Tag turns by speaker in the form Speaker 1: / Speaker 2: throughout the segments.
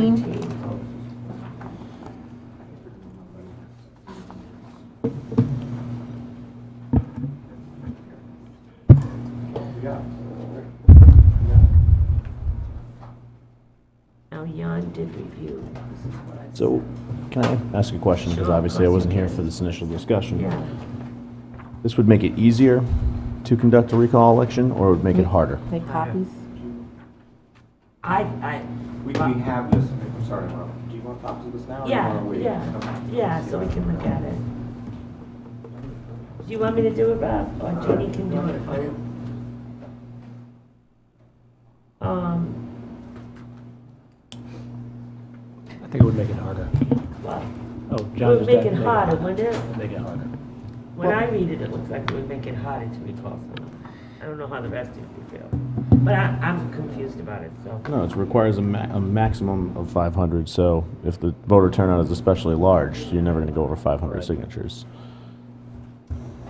Speaker 1: 17.
Speaker 2: Now, Jan did review. This is what I-
Speaker 3: So, can I ask a question? Because
Speaker 2: Sure, of
Speaker 3: obviously I
Speaker 2: course
Speaker 3: wasn't
Speaker 2: you
Speaker 3: here
Speaker 2: can.
Speaker 3: for this initial discussion.
Speaker 2: Yeah.
Speaker 3: This would make it easier to conduct a recall election, or it would make
Speaker 2: Mm-hmm.
Speaker 3: it harder?
Speaker 1: Make copies?
Speaker 2: I, I,
Speaker 4: We, we have this, I'm sorry, Mom. Do you want copies of this now? or do Oh, you
Speaker 2: yeah,
Speaker 4: wanna wait?
Speaker 2: yeah,
Speaker 4: Okay.
Speaker 2: yeah, so we can look at it. Do you want me to do it, Rob, or Jenny can do it? for you? Um,
Speaker 5: I think it would make it harder.
Speaker 2: well,
Speaker 5: Oh,
Speaker 2: it
Speaker 5: John
Speaker 2: would
Speaker 5: just.
Speaker 2: make it harder, wouldn't it?
Speaker 5: It'd Make it harder.
Speaker 2: When I read it, it looks like it would make it harder to recall someone. I don't know how the rest of you feel, but I, I'm confused about it, so.
Speaker 3: No, it requires a, ma- a maximum of 500, so if the voter turnout is especially large, you're never going to go over 500
Speaker 5: Right.
Speaker 3: signatures.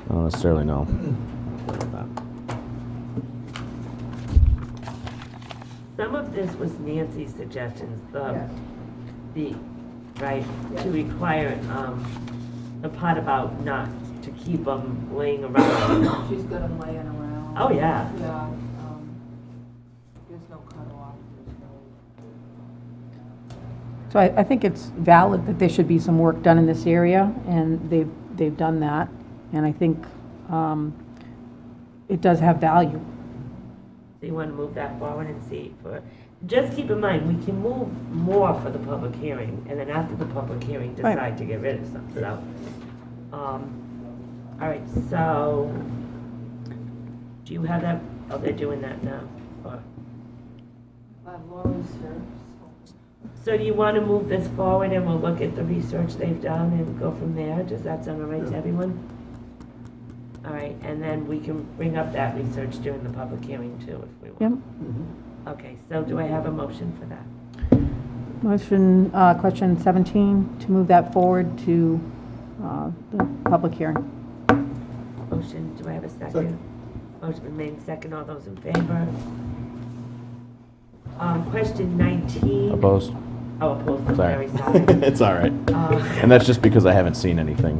Speaker 3: I don't necessarily know.
Speaker 2: Mm-hmm. Some of this was Nancy's suggestions, the, the, right, to require, um, the part about not to keep them laying around.
Speaker 6: She's got them laying around.
Speaker 2: Oh, yeah.
Speaker 6: Yeah, um, there's no cutoff, there's no,
Speaker 1: So I, I think it's valid that there should be some work done in this area, and they've, they've done that. And I think um, it does have value.
Speaker 2: So you wanna move that forward and see for, just keep in mind, we can move more for the public hearing, and then after the public hearing,
Speaker 1: Right.
Speaker 2: decide to get rid of some, so. Um, all right, so, do you have that, oh, they're doing that now, or?
Speaker 6: but Laura's here, so.
Speaker 2: So do you want to move this forward and we'll look at the research they've done and go from there? Does that sound all right to everyone? All right, and then we can bring up that research during the public hearing too if we
Speaker 1: Yep.
Speaker 2: want. Okay, so do I have a motion for that?
Speaker 1: Motion, uh, question 17, to move that forward to uh, the public hearing.
Speaker 2: Motion, do I have a second? Motion been made second, all those in favor? Um, question nineteen.
Speaker 3: Opposed?
Speaker 2: Oh, opposed, I'm
Speaker 3: Sorry.
Speaker 2: very sorry.
Speaker 3: It's all right.
Speaker 2: Uh,
Speaker 3: And that's just because I haven't seen anything.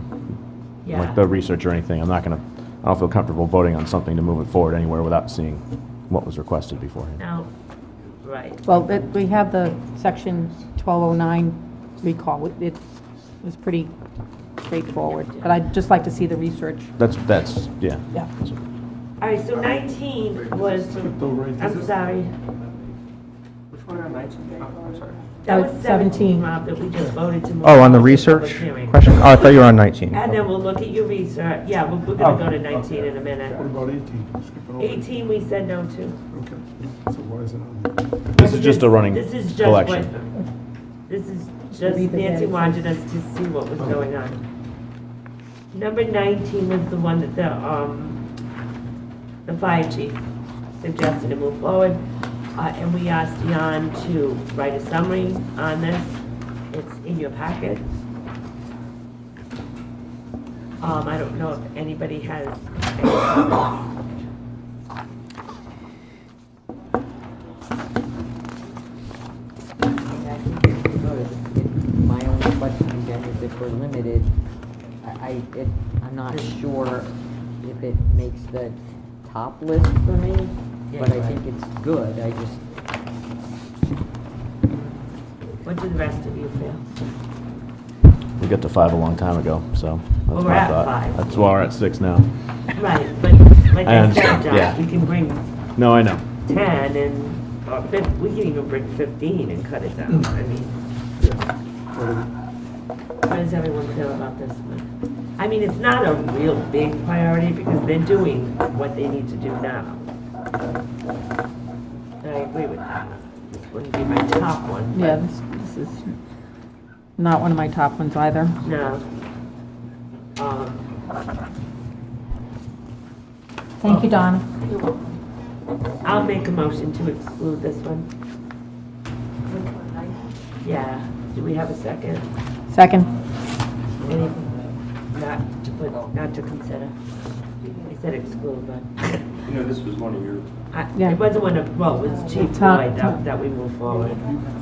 Speaker 3: like the
Speaker 2: Yeah,
Speaker 3: research or anything. I'm not going to, I don't feel comfortable voting on something to move it forward anywhere without seeing what was requested beforehand.
Speaker 2: now, right.
Speaker 1: Well, that- we have the section 1209 recall. It- It was pretty straightforward, but I'd just like to see the research.
Speaker 3: That's, that's, yeah.
Speaker 1: Yeah.
Speaker 2: All right, so nineteen was,
Speaker 4: Tripped over, is
Speaker 2: I'm
Speaker 4: this-
Speaker 2: sorry.
Speaker 4: Which one are nineteen? Oh, I'm sorry.
Speaker 2: That
Speaker 1: Uh,
Speaker 2: was
Speaker 1: 17.
Speaker 2: 17, Rob, that we just voted to move.
Speaker 7: Oh, on the
Speaker 2: to public
Speaker 7: research
Speaker 2: hearing.
Speaker 7: question? Oh, I thought you were on 19.
Speaker 2: And then we'll look at your research, yeah, we're, we're gonna go to
Speaker 8: Oh,
Speaker 2: 19 in a minute.
Speaker 8: What about 18? Skipping over.
Speaker 2: 18, we said no to.
Speaker 8: Okay, so why is it on?
Speaker 3: This is just a running
Speaker 2: This is just what-
Speaker 3: collection.
Speaker 2: This is just,
Speaker 1: Read the
Speaker 2: Nancy
Speaker 1: data.
Speaker 2: wanted us to see what was going on. Number 19 was the one that the, um, the fire chief suggested to move forward. Uh, and we asked Jan to write a summary on this. It's in your packet. Um, I don't know if anybody has any comments.
Speaker 9: I think it's good. It- My only question again is if we're limited, I, I, it, I'm not sure if it makes the top list for me,
Speaker 2: Yeah,
Speaker 9: but I
Speaker 2: you're right.
Speaker 9: think it's good, I just,
Speaker 2: What do the rest of you feel?
Speaker 3: We got to five a long time ago, so. that's
Speaker 2: Well, we're
Speaker 3: my
Speaker 2: at
Speaker 3: thought.
Speaker 2: five.
Speaker 3: That's why we're at six now.
Speaker 2: Right, but like
Speaker 3: I
Speaker 2: I said,
Speaker 3: understand, yeah.
Speaker 2: Josh, we can bring
Speaker 3: No, I know.
Speaker 2: ten and, or fif, we can even bring fifteen and cut it down, I mean, how does everyone feel about this one? I mean, it's not a real big priority because they're doing what they need to do now. And I agree with that, this wouldn't be my top one,
Speaker 1: Yeah,
Speaker 2: but,
Speaker 1: this this is not one of my top ones either.
Speaker 2: no. Um,
Speaker 1: Thank you, Donna.
Speaker 2: I'll make a motion to exclude this one,
Speaker 6: Which one, nineteen?
Speaker 2: yeah, do we have a second?
Speaker 1: Second.
Speaker 2: Any- Not to put, not to consider. I said exclude, but
Speaker 4: You know, this was one of your
Speaker 2: I-
Speaker 1: Yeah.
Speaker 2: it wasn't one of, well, it was Chief
Speaker 1: Tom-
Speaker 2: Floyd that, that we moved forward.